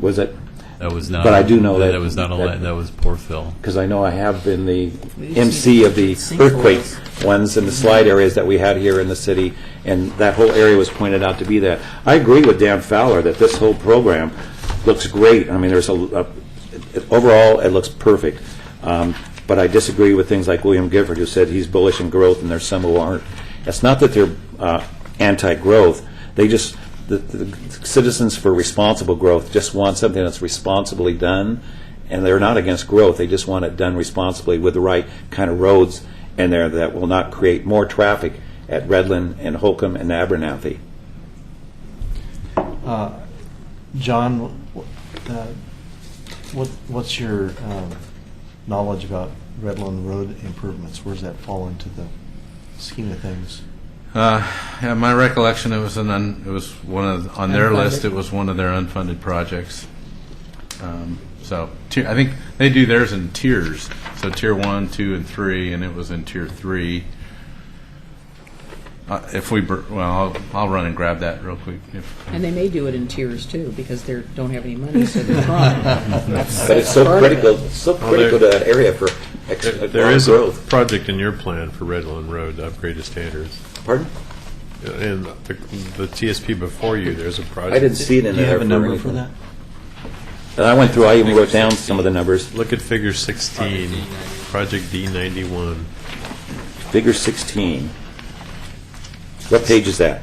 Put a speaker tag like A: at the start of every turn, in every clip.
A: was it?
B: That was not.
A: But I do know that-
B: That was not, a li-
A: that-
B: that was poor Phil.
A: Because I know I have been the
C: We've
A: MC
C: seen
A: of the
C: sinkholes.
A: earthquake ones and the slide areas that we had here in the city, and that whole area was pointed out to be that. I agree with Dan Fowler that this whole program looks great. I mean, there's a, a- it- overall, it looks perfect. Um, But I disagree with things like William Gifford, who said he's bullish in growth, and there's some who aren't. It's not that they're uh, anti-growth, they just, the- the Citizens for Responsible Growth just want something that's responsibly done, and they're not against growth, they just want it done responsibly with the right kind of roads in there that will not create more traffic at Redland and Holcomb and Abernathy.
D: John, wh- uh, what, what's your um, knowledge about Redland Road improvements? Where's that fall into the scheme of things?
E: Yeah, my recollection, it was an, un- it was one of, on their
C: Unfunded.
E: list, it was one of their unfunded projects. Um, So, tier, I think they do theirs in tiers, so tier one, two, and three, and it was in tier three. Uh, If we, br- well, I'll, I'll run and grab that real quick. If-
C: And they may do it in tiers too, because they don't have any money, so they're trying. That's-
A: But it's so
C: that's part of it.
A: critical, it's so critical to that area for ex-
F: There- There is a
A: growth.
F: project in your plan for Redland Road to upgrade to standards.
A: Pardon?
F: And the the TSP before you, there's a project.
A: I didn't see it in
D: Do you
A: there.
D: have a number for
A: anything.
D: that?
A: And I went through, I even wrote down some of the numbers.
F: Look at figure 16, project D91.
A: Figure 16. What page is that?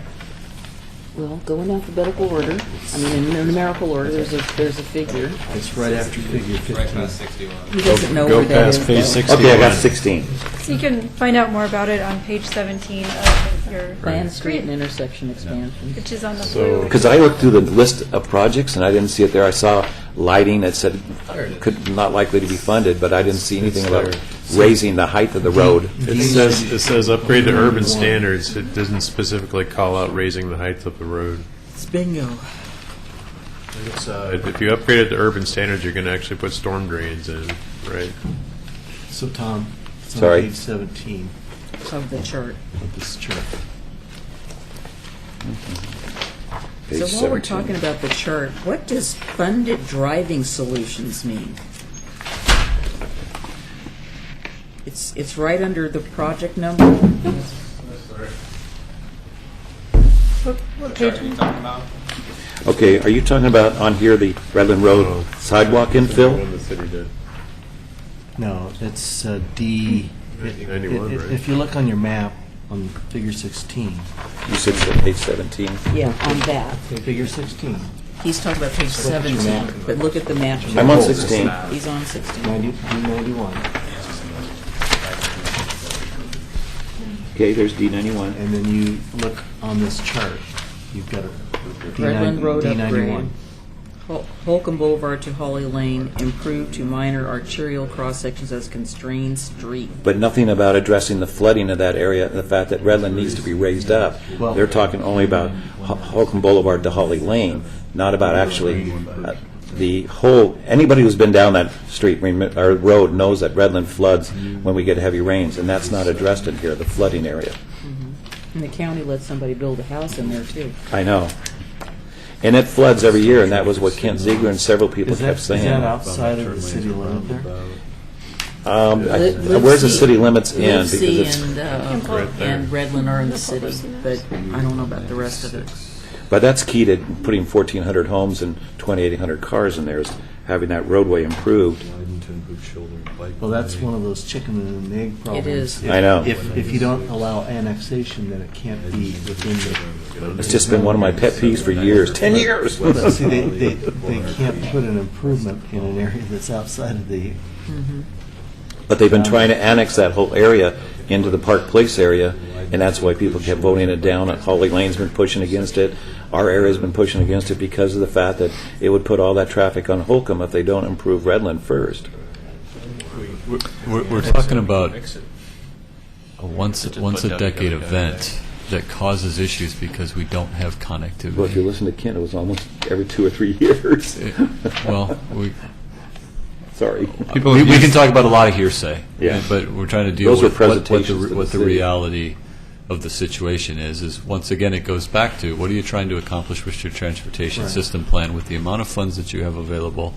C: Well, go in alphabetical order, I mean, in numerical order, there's a, there's a figure.
D: It's right after figure 15.
C: He doesn't know
F: Go
C: where that
F: past
C: is.
F: page
C: though.
F: 61.
A: Okay, I got 16.
G: You can find out more about it on page 17 of your
C: Plan, street, and
G: grant,
C: intersection expansion.
G: which is on the
F: So-
G: blue.
A: Because I looked through the list of projects, and I didn't see it there. I saw lighting that said, could, not likely to be funded, but I didn't see anything about raising the height of the road.
F: It says, it says upgrade to urban standards. It doesn't specifically call out raising the height of the road.
C: Bingo.
F: But If you upgrade it to urban standards, you're going to actually put storm drains in, right?
D: So Tom, it's on
A: Sorry.
D: page 17
C: Of the chart.
D: of this chart.
A: Page
C: So while
A: 17.
C: we're talking about the chart, what does funded driving solutions mean? It's, it's right under the project number.
G: What- What page?
A: Okay, are you talking about on here, the Redland Road sidewalk infill?
F: One the city did.
D: No, it's uh, D. it- it-
F: 91,
D: it-
F: right?
D: If you look on your map on figure 16,
A: You said it's on page 17.
C: Yeah, on that.
D: figure 16,
C: He's talking about page 17, but look at the map.
A: I'm on 16.
C: He's on 16.
D: 90 D91,
A: Okay, there's D91.
D: and then you look on this chart, you've got a
C: Redland
D: D9-
C: Road
D: D91.
C: upgrade. Hol- Holcomb Boulevard to Holly Lane, improved to minor arterial cross-sections as constrained street.
A: But nothing about addressing the flooding of that area, the fact that Redland needs to be raised up.
D: Well-
A: They're talking only about Ho- Holcomb Boulevard to Holly Lane, not about actually uh, the whole, anybody who's been down that street, remi- or road, knows that Redland floods when we get heavy rains, and that's not addressed in here, the flooding area.
C: And the county let somebody build a house in there, too.
A: I know. And it floods every year, and that was what Kent Ziegler and several people
D: Is that,
A: kept
D: is
A: saying.
D: that outside of the city limit there?
A: Um, I-
C: Live- Live
A: Where's the
C: C-
A: city limits end?
C: Live
A: Because
C: C
A: it's,
C: and, uh, and Redland are in the city, but I don't know about the rest of it.
A: but that's key to putting 1,400 homes and 2,800 cars in there, is having that roadway improved.
D: Well, that's one of those chicken and an egg problems.
C: is.
A: I know.
D: If, if you don't allow annexation, then it can't be within the.
A: It's just been one of my pet peeves for years, 10 years.
D: But see, they, they, they can't put an improvement in an area that's outside of the,
C: Mm-hmm.
A: But they've been trying to annex that whole area into the Park Place area, and that's why people kept voting it down. And Holly Lane's been pushing against it. Our area's been pushing against it because of the fact that it would put all that traffic on Holcomb if they don't improve Redland first.
B: We're, we're talking about a once, once a decade event that causes issues because we don't have
A: Well, if you
B: connectivity. Eh,
A: listen to Kent, it was almost every two or three years.
B: Well, we,
A: Sorry.
E: People
B: we we can
E: use-
B: talk about a lot of hearsay.
A: Yeah.
B: But we're trying to deal
A: Those were
B: with what- what the,
A: presentations to
B: re-
A: the
B: what the
A: city.
B: reality of the situation is, is once again, it goes back to, what are you trying to accomplish with your transportation
D: Right.
B: system plan with the amount of funds that you have available